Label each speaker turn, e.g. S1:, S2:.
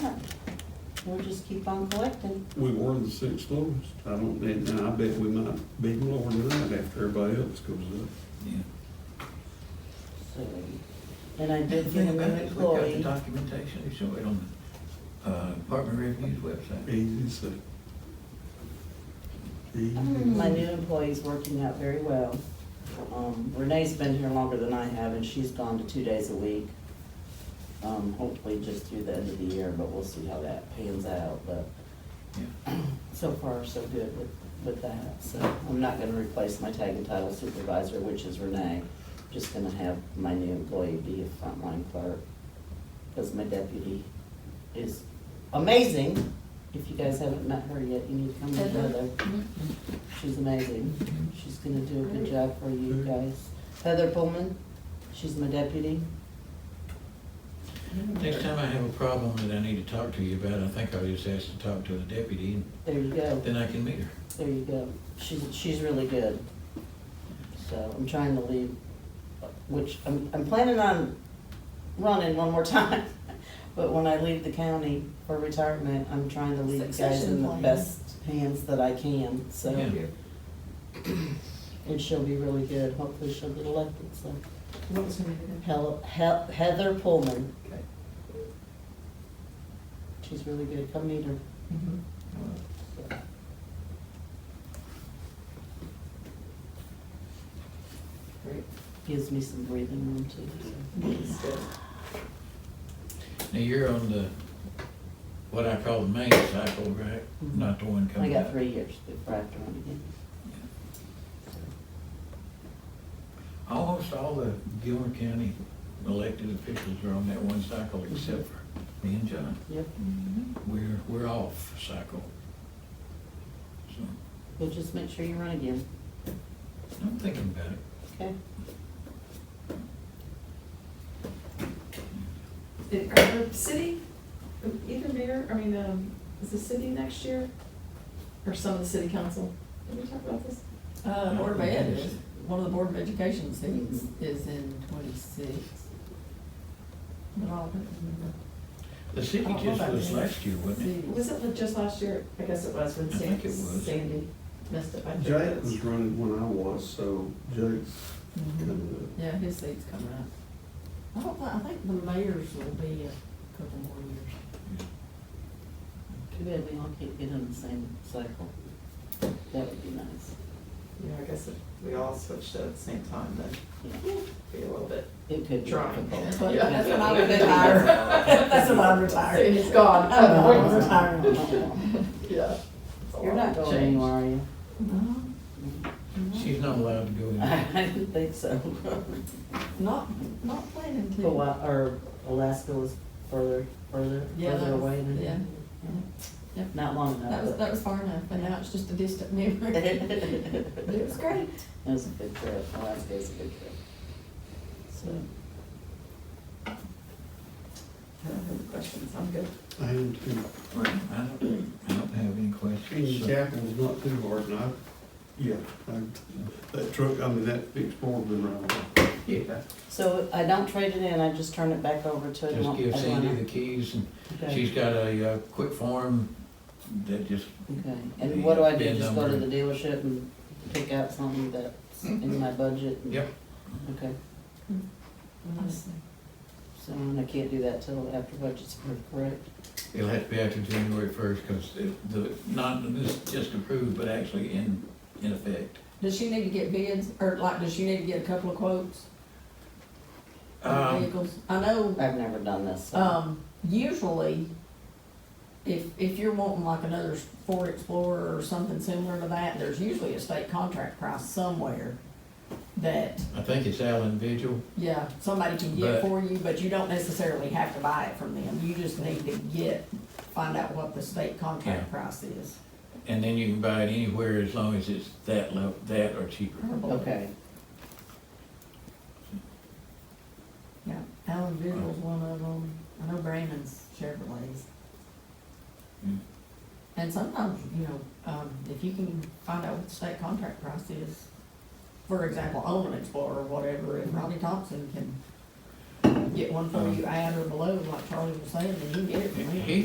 S1: we'll just keep on collecting.
S2: We were the sixth lowest. I don't, and and I bet we might be lower than that after everybody else goes up.
S3: Yeah.
S1: So, And I
S3: The
S1: did
S3: thing
S1: get a
S3: about
S1: new
S3: it is we've got the
S1: employee.
S3: documentation, they show it on the, uh, Department of Revenue's website.
S2: Easy as that. Easy.
S1: My new employee's working out very well. Um, Renee's been here longer than I have, and she's gone to two days a week. Um, hopefully just through the end of the year, but we'll see how that pans out, but
S3: Yeah.
S1: so far, so good with, with that. So I'm not gonna replace my tag and title supervisor, which is Renee. Just gonna have my new employee be a frontline clerk, because my deputy is amazing. If you guys haven't met her yet, you need to come meet Heather. She's amazing. She's gonna do a good job for you guys. Heather Pullman, she's my deputy.
S3: Next time I have a problem that I need to talk to you about, I think I'll just ask to talk to the deputy, and
S1: There you go.
S3: then I can meet her.
S1: There you go. She's, she's really good. So I'm trying to leave, which I'm, I'm planning on running one more time. But when I leave the county for retirement, I'm trying to leave you guys in
S4: Succession
S1: the
S4: plan.
S1: best hands that I can, so.
S3: Yeah.
S1: And she'll be really good. Hopefully she'll get elected, so.
S4: What was the name of that?
S1: Hel- Hel- Heather Pullman,
S4: Okay.
S1: she's really good. Come meet her.
S4: Mhm.
S1: so.
S4: Great.
S1: Gives me some breathing room too, so.
S4: Yes, good.
S3: Now, you're on the, what I call the main cycle, right?
S1: Mhm.
S3: Not the one
S1: I
S3: coming out.
S1: got three years before I have to run again.
S3: Almost all the Gilmer County elected officials are on that one cycle
S1: Mm-hmm.
S3: except for me and John.
S1: Yep,
S3: We're, we're off cycle. So,
S1: well, just make sure you run again,
S3: I'm thinking about it.
S1: okay?
S4: Did- Are the city, either mayor, I mean, um, is the city next year? Or some of the city council? Did we talk about this?
S5: Uh, Board of Ed is, one of the Board of Education seats is in twenty-six. But I don't remember.
S3: The city
S4: Oh, hold
S3: just
S4: on.
S3: was last year, wasn't it?
S5: See,
S4: Was it just last year? I guess it was when
S3: I think it was.
S4: Sandy messed up. I think it
S2: Jake
S4: was.
S2: was running when I was, so Jake's
S5: mhm.
S2: coming up.
S5: Yeah, his seat's coming up. I don't, thi- I think the mayor's will be a couple more years.
S1: Too bad we all can't get on the same cycle. That would be nice,
S4: Yeah, I guess if we all switched at the same time, then
S1: yeah.
S4: it'd be a little bit.
S1: It could be
S4: Trying.
S1: difficult.
S5: But
S4: Yeah.
S5: that's when I would retire. That's when I'm retired.
S4: It's gone.
S5: I'm retired.
S4: Yeah.
S1: You're not going anywhere, are you?
S5: No,
S3: She's not allowed to go in.
S1: I didn't think so.
S5: Not, not planning to.
S1: Hawaii, or Alaska was further, further,
S5: Yeah,
S1: further
S5: that was-
S1: away than.
S5: yeah. Yeah.
S1: Not long enough.
S5: That was,
S1: but-
S5: that was far enough, and now it's just a distant memory. But it was great.
S1: That was a good trip, Alaska was a good trip. So,
S4: I don't have any questions, I'm good.
S2: And
S3: I don't, I don't have any questions.
S2: Kenny
S3: so-
S2: Chapel's not too hard, and I, yeah, I- that truck, I mean, that Explorer been around.
S3: Yeah.
S1: so I don't trade it in, I just turn it back over to.
S3: Just give Sandy the keys and
S1: Okay.
S3: she's got a, uh quick form that just,
S1: Okay, and what do I do,
S3: Bid
S1: just go to
S3: number.
S1: the dealership and pick out something that's in my budget? and-
S3: Yep.
S1: Okay,
S5: Honestly.
S1: so and I can't do that till after budget's approved, correct?
S3: it'll have to be after January first, cause it- the, not, this just approved, but actually in, in effect.
S5: Does she need to get bids, or like, does she need to get a couple of quotes on
S3: Um,
S5: vehicles? I know,
S1: I've never done this, so,
S5: um, usually, if, if you're wanting like another Ford Explorer or something similar to that, there's usually a state contract price somewhere that,
S3: I think it's Allen Vigil,
S5: yeah, somebody can
S3: But-
S5: get for you, but you don't necessarily have to buy it from them. You just need to get, find out what the state contract price is.
S3: and then you can buy it anywhere as long as it's that level, that or cheaper.
S5: or below.
S1: okay,
S5: Yeah, Allen Vigil's one of them, I know Brandon's Chevrolet's.
S3: Mm.
S5: And sometimes, you know, um, if you can find out what the state contract price is, for example, own an Explorer or whatever, and Ronnie Thompson can get one for you at or below, like Charlie was saying, then you can get it from him.
S3: He